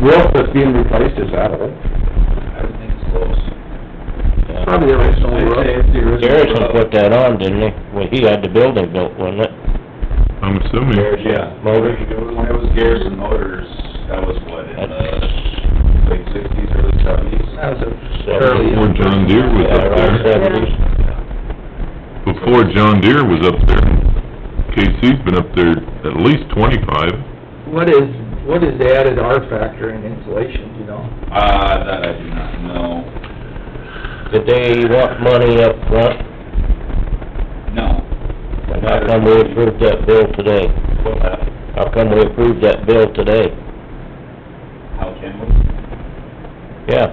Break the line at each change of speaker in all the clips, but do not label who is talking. roof that's being replaced, is that old?
I would think it's close.
Probably the original
I'd say
roof.
it's the original.
Garrison put that on, didn't he? Well, he had the building built, wasn't it?
I'm assuming.
Yeah.
Motors.
When it was Garrison Motors, that was what, in the
That's
late sixties, early seventies?
That was a fairly...
Before John Deere was
yeah,
up
around
there,
seventies.
before John Deere was up there, KC's been up there at least twenty-five.
What is, what is the added R factor in insulation, you know?
Uh, that I do not know,
Did they want money up front?
no.
And how come we approved that bill today?
What, uh,
How come we approved that bill today?
how can we?
Yeah,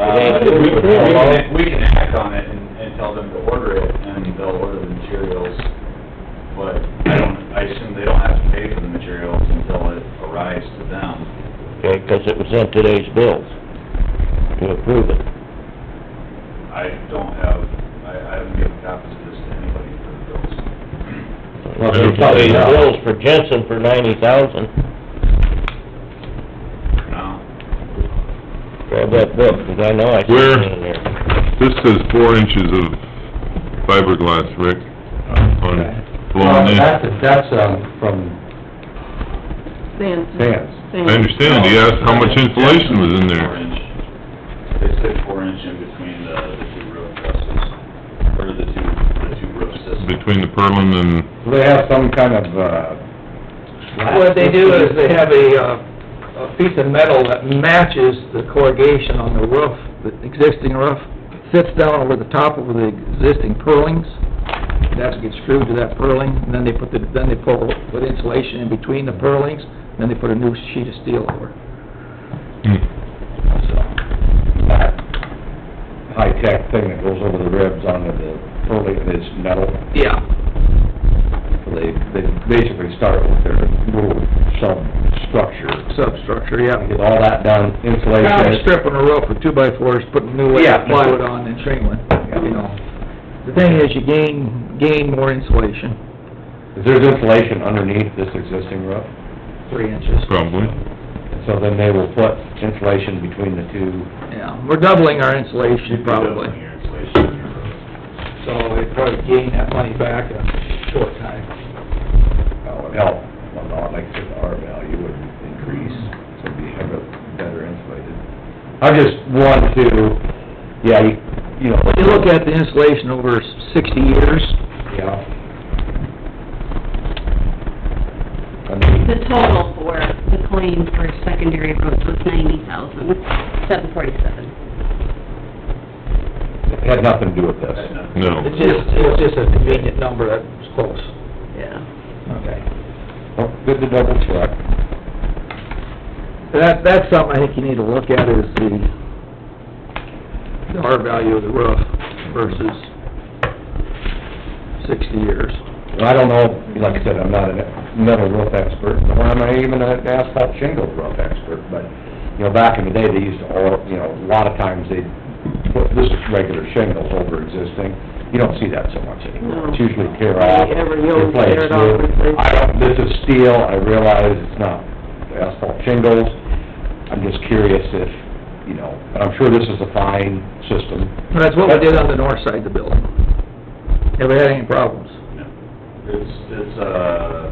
Uh, we we can, we can act on it and, and tell them to order it, and they'll order the materials, but I don't, I assume they don't have to pay for the materials until it arrives to them.
okay, 'cause it was in today's bills to approve it.
I don't have, I, I haven't given copies of this to anybody for the bills.
Well, they probably bills for Jensen for ninety thousand.
No,
Grab that book, 'cause I know I see
Where?
it in there.
This says four inches of fiberglass, Rick, on
Well,
blown in.
That's, that's, um, from
Sands.
fans.
I understand, he asked how much insulation was in
Four
there.
inch. They said four inch in between the, the two roof trusses, or the two, the two roof systems.
Between the purlin and,
Do they have some kind of, uh...
What they do is they have a, uh, a piece of metal that matches the corrugation on the roof, the existing roof, sits down over the top of the existing purlings, that's gets screwed to that purling, and then they put the, then they pull, put insulation in between the purlings, then they put a new sheet of steel over.
hmm,
That high-tech thing that goes over the ribs onto the, fully, it's metal.
Yeah.
So They, they basically start with their little sub-structure.
Substructure, yeah.
Get all that done, insulation.
Kind of stripping a roof with two by fours, putting new layer
Yeah.
of plywood on and shingling, you know. The thing is, you gain, gain more insulation,
Is there insulation underneath this existing roof?
three inches.
probably.
So then they will put insulation between the two.
Yeah, we're doubling our insulation probably,
Doubling your insulation in your roof.
so we'd probably gain that money back in a short time.
That would help, on the electric R value would increase, so it'd be better insulated. I just want to, yeah, you- you know.
When you look at the insulation over sixty years,
Yeah. I mean,
The total for the claim for secondary roads was ninety thousand, seven forty-seven.
it had nothing to do with
That's
this.
not-
No.
it's just, it's just a convenient number that's close.
Yeah.
Okay.
Well, Oh, Good to double check.
That, that's something I think you need to look at is the, the R value of the roof versus sixty years.
And I don't know, like I said, I'm not a metal roof expert, nor am I even an asphalt shingle roof expert, but, you know, back in the day, they used to, all you know, a lot of times they'd put this regular shingles over existing. You don't see that so much anymore.
No.
It's usually tear off,
Hardly ever, you always
replace
tear it off,
new.
replace.
I don't, this is steel, I realize it's not asphalt shingles. I'm just curious if, you know, and I'm sure this is a fine system.
That's what we did on the north side of the building. Have we had any problems?
No. It's, it's, uh,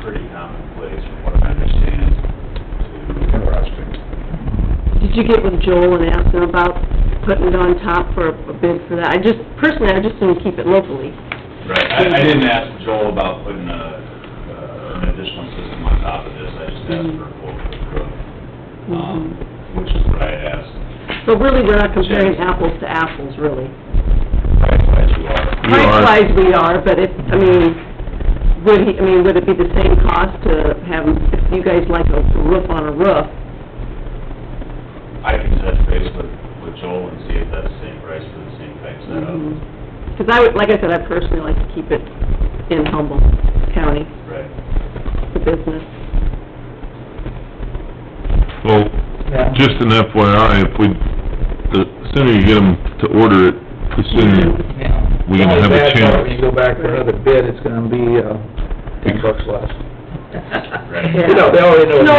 pretty commonplace from what I understand to.
Interesting.
Did you get with Joel and ask him about putting it on top for a bid for that? I just, personally, I just want to keep it locally.
Right, I, I didn't ask Joel about putting a, uh, an additional system on top of this, I just asked for a quote for the roof. Um, which is what I had asked,
So really, we're not comparing apples to apples, really.
as you are.
You are-
Price-wise, we are, but it, I mean, would he, I mean, would it be the same cost to have, if you guys like a roof on a roof,
I can touch base with, with Joel and see if that's the same price for the same type setup.
Mm-hmm. Because I would, like I said, I personally like to keep it in Humboldt County,
Right.
the business.
Well,
Yeah.
just an FYI, if we, the sooner you get them to order it, the
Mm-hmm.
sooner
Yeah.
we can have a
Only bad part, When you
chance.
go back for another bid, it's gonna be, uh, ten bucks less.
Right.
You know, they already know.
No,